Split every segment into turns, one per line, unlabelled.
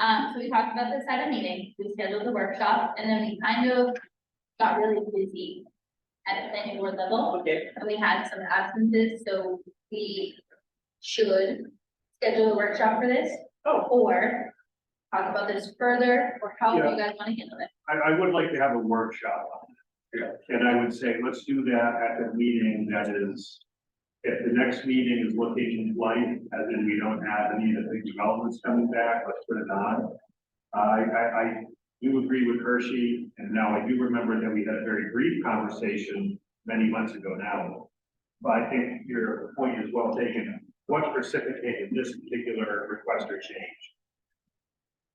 um, so we talked about this at a meeting, we scheduled the workshop, and then we kind of got really busy at a planning board level,
Okay,
and we had some absences, so we should schedule a workshop for this,
oh,
or talk about this further, or how you guys wanna handle it.
I, I would like to have a workshop on it. And I would say, let's do that at the meeting that is, if the next meeting is looking light, as in we don't have any of the big developments coming back, let's put it on. I, I, I do agree with Hershey, and now I do remember that we had a very brief conversation many months ago now. But I think your point is well taken. What precipitated this particular request or change?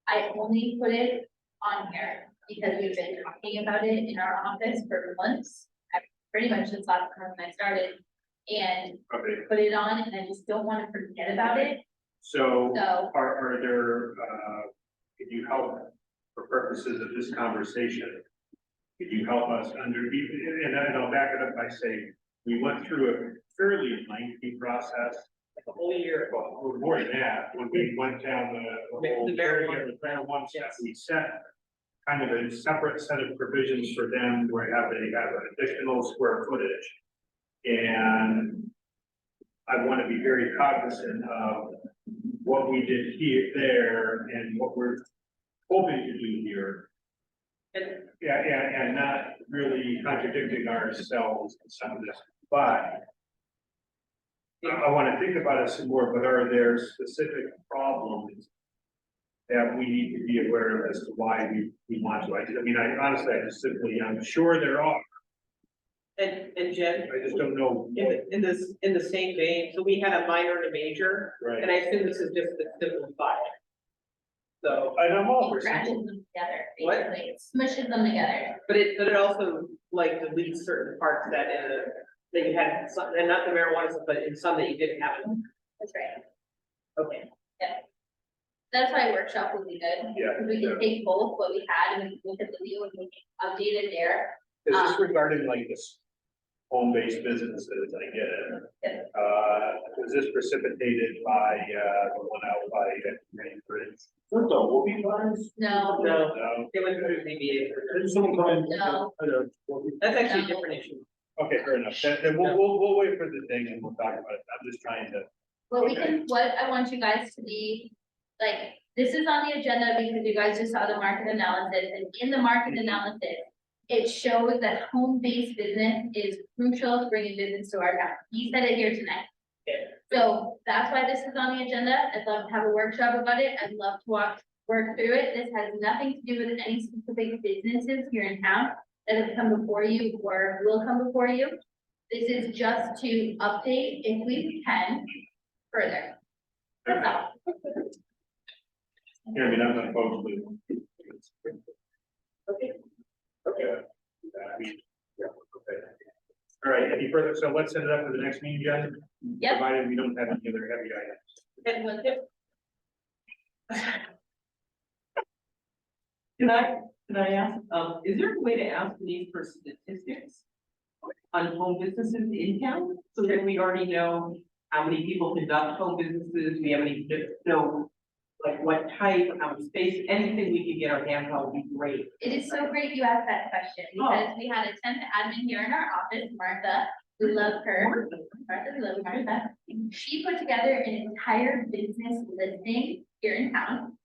I only put it on here because we've been talking about it in our office for months, I- pretty much since last time I started. And
Okay,
put it on, and I just don't wanna forget about it,
so.
so
Are, are there, uh, could you help for purposes of this conversation? Could you help us under, and I- and I'll back it up by saying, we went through a fairly lengthy process.
the whole year.
Well, more than that, when we went down the.
The- the
whole
very one.
The very one step,
Yes.
we set kind of a separate set of provisions for them where have they have an additional square footage. And I want to be very cognizant of what we did here, there, and what we're hoping to do here.
And-
Yeah, and, and not really contradicting ourselves in some of this, but I, I wanna think about it some more, but are there specific problems? That we need to be aware of as to why we, we want to, I I mean, I honestly, I just simply, I'm sure there are,
And, and Jen,
I just don't know.
in,
what,
the- in this, in the same vein, so we had a minor and a major,
Right,
and I assume this is just the simplified. So,
and I'm all for
it
simple,
scratches them together,
What?
basically, It smushes them together.
but it, but it also like deletes certain parts that in a, that you had, some- and not the marijuana, stuff, but in some that you didn't have.
That's right.
Okay.
That's why workshop would be good,
yeah.
because we can take both what we had and we can look at the new and we can update it there.
Is this regarding like this home-based businesses, I get it.
Yeah.
Uh, was this precipitated by, uh, the one out by Main Bridge? What the whoopee farms?
No,
No,
No.
it went through ZBA. for-
Didn't someone come in?
No.
I don't know.
That's actually a different issue.
Okay, fair enough. Then, then we'll, we'll, we'll wait for the thing and we'll talk about it. I'm just trying to,
what we
Okay.
can, what I want you guys to be, like, this is on the agenda because you guys just saw the market analysis, and in the market analysis, it shows that home-based business is crucial to bringing business to our town. He said it here tonight.
Yeah.
So that's why this is on the agenda. I'd love to have a workshop about it. I'd love to walk, work through it. This has nothing to do with any specific businesses here in town that have come before you or will come before you. This is just to update if we can further. That's all.
yeah, I mean, I'm not opposed to. it.
Okay.
Okay. I mean, yeah, okay. All right, any further? So let's set it up for the next meeting, guys.
Yep.
Provided we don't have any other heavy items.
And with it. Can I, can I ask, um, is there a way to ask these for statistics? On home businesses in town, so that we already know how many people conduct home businesses, we have any, know. Like what type, how much space, anything we can get our hands on would be great.
It is so great you asked that question, because we had a temp admin here in our office, Martha, we love her, Martha, we love Martha. She put together an entire business listing here in town,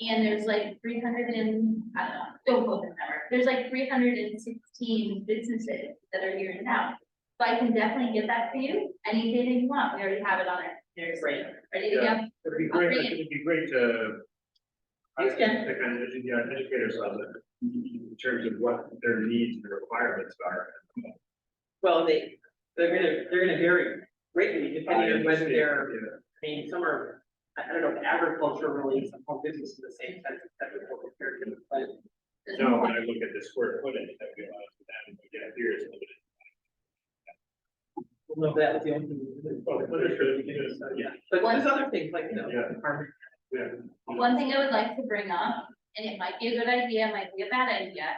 and there's like three hundred and, I don't know, don't quote the number, there's like three hundred and sixteen businesses that are here in town. So I can definitely get that for you, any day that you want, we already have it on our, there's,
Great.
ready to go.
It'd be great,
Agreed.
it'd be great to. I
Yes, Jen.
think, kind of edu- yeah, educate ourselves in terms of what their needs and requirements are.
Well, they, they're gonna, they're gonna vary greatly
Yeah.
I mean, some are, I I don't know, if agriculture really is a whole business in the same sense as agriculture, compared to, but
No, when I look at the square footage, I realize that, yeah, here is. limited.
we'll know that was the only thing.
Oh, the footage for the beginning, yeah,
But there's other things like, you know,
Yeah.
farming.
yeah.
One thing I would like to bring up, and it might be a good idea, it might be a bad idea.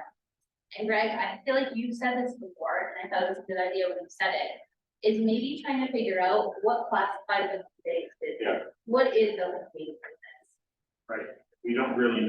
And Greg, I feel like you've said this before, and I thought it was a good idea when you said it, is maybe trying to figure out what classifies a big business.
Yeah.
What is a big business?
We don't really